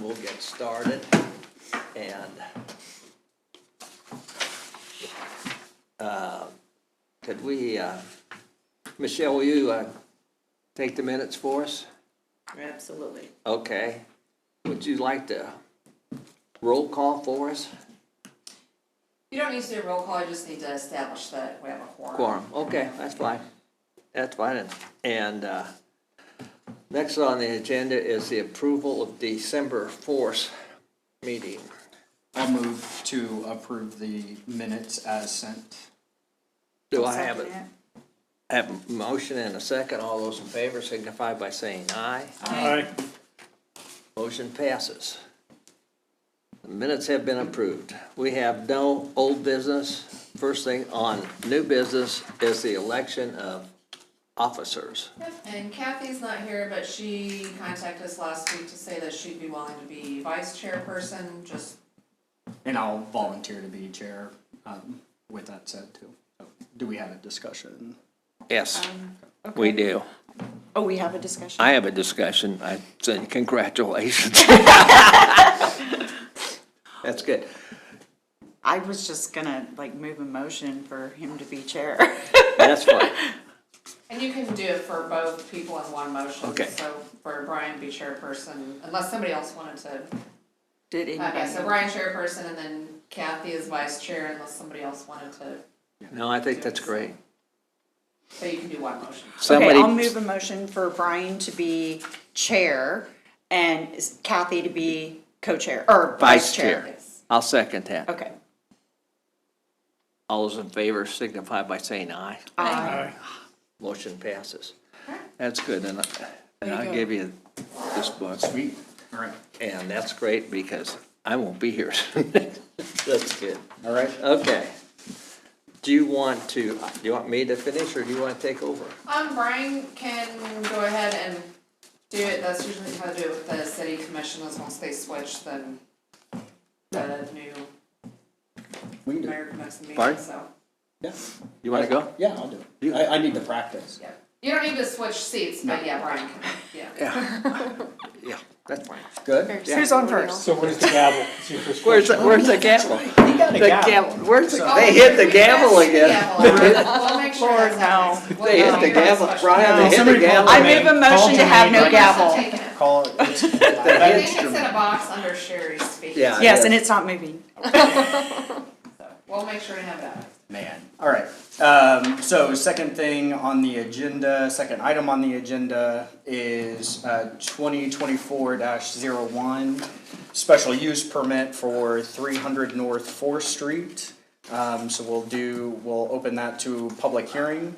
we'll get started and uh, could we, uh, Michelle, will you uh, take the minutes for us? Absolutely. Okay. Would you like to roll call for us? You don't need to do a roll call, you just need to establish that we have a quorum. Quorum, okay, that's fine. That's fine. And uh, next on the agenda is the approval of December 4th meeting. I'll move to approve the minutes as sent. Do I have it? Have a motion and a second. All those in favor signify by saying aye. Aye. Motion passes. The minutes have been approved. We have no old business. First thing on new business is the election of officers. And Kathy's not here, but she contacted us last week to say that she'd be willing to be vice chairperson, just, And I'll volunteer to be chair um, with that said too. So, Do we have a discussion? Yes, Um, we do. Oh, we have a discussion? I have a discussion. I said, congratulations. That's good. I was just gonna like move a motion for him to be chair. That's fine. and you can do it for both people in one motion. Okay. So for Brian be chairperson, unless somebody else wanted to, Did okay, so anybody? Brian chairperson and then Kathy is vice chair unless somebody else wanted to, No, I think that's great. so you can do one motion. Okay, I'll Somebody, move a motion for Brian to be chair and Kathy to be co-chair or vice Vice chair. chair. I'll second that. Okay. All those in favor signify by saying aye. Aye. Motion passes. That's good, and, I- and I'll go. give you this book, Sweet. All right. and that's great because I won't be here. That's good. All right. Okay. Do you want to, do you want me to finish, or do you want to take over? Um, Brian can go ahead and do it, that's usually how to do it with the city commissioners, once they switch, then the new We can do it. mayor comes to meeting, Pardon? so, Yeah. You want to go? Yeah, I'll do it. I, I need to practice. yeah. You don't need to switch seats, but yeah, Brian can, yeah. Yeah, that's fine. Good? Who's on first? So where's the gavel? See if it's- Where's, the- where's the gavel? You got The a gavel, gavel. where's, the- they hit the Oh, gavel again. We'll make sure Lord, that's not next. They hit the gavel, No. Brian, they hit the Somebody call gavel. I move Call a motion to Jermaine. have no Call Jermaine. gavel. Taking it. Call it. it's- I that think it's in instrument. a box under Sherry's feet. Yeah. Yes, and it's not moving. We'll make sure to have that. Man, all right. Um, so second thing on the agenda, second item on the agenda is uh, twenty twenty-four one special use permit for three hundred North Fourth Street. Um, so we'll do, we'll open that to public hearing,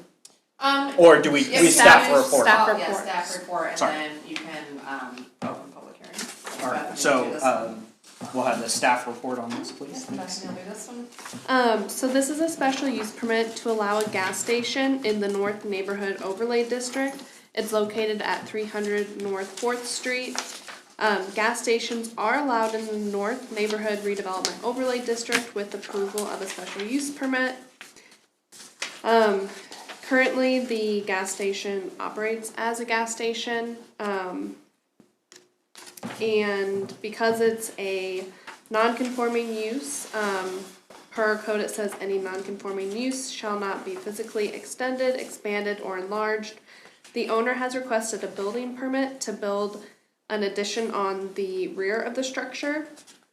Um, or do we, Yes, we staff is- report? staff- Staff yeah, report. staff report, and Sorry. then you can, um, open public hearing. All right, so, um, we'll have the staff report on this, please. Thanks. Bethany will do this one. Um, so this is a special use permit to allow a gas station in the North Neighborhood Overlay District. It's located at three hundred North Fourth Street. Um, gas stations are allowed in the North Neighborhood Redevelopment Overlay District with approval of a special use permit. Um, currently, the gas station operates as a gas station. Um, and because it's a non-conforming use, um, per code, it says any non-conforming use shall not be physically extended, expanded, or enlarged. The owner has requested a building permit to build an addition on the rear of the structure.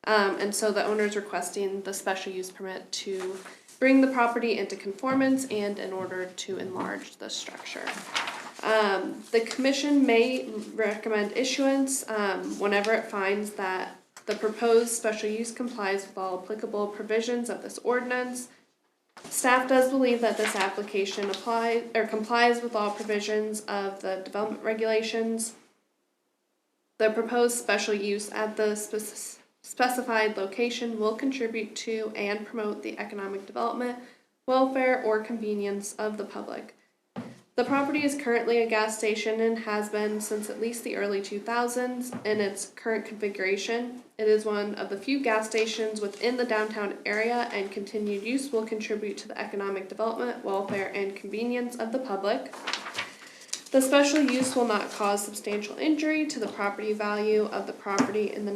Um, and so the owner is requesting the special use permit to bring the property into conformance and in order to enlarge the structure. Um, the commission may recommend issuance, um, whenever it finds that the proposed special use complies with all applicable provisions of this ordinance. Staff does believe that this application applies, or complies with all provisions of the development regulations. The proposed special use at the spec- specified location will contribute to and promote the economic development, welfare, or convenience of the public. The property is currently a gas station and has been since at least the early 2000s in its current configuration. It is one of the few gas stations within the downtown area, and continued use will contribute to the economic development, welfare, and convenience of the public. The special use will not cause substantial injury to the property value of the property in the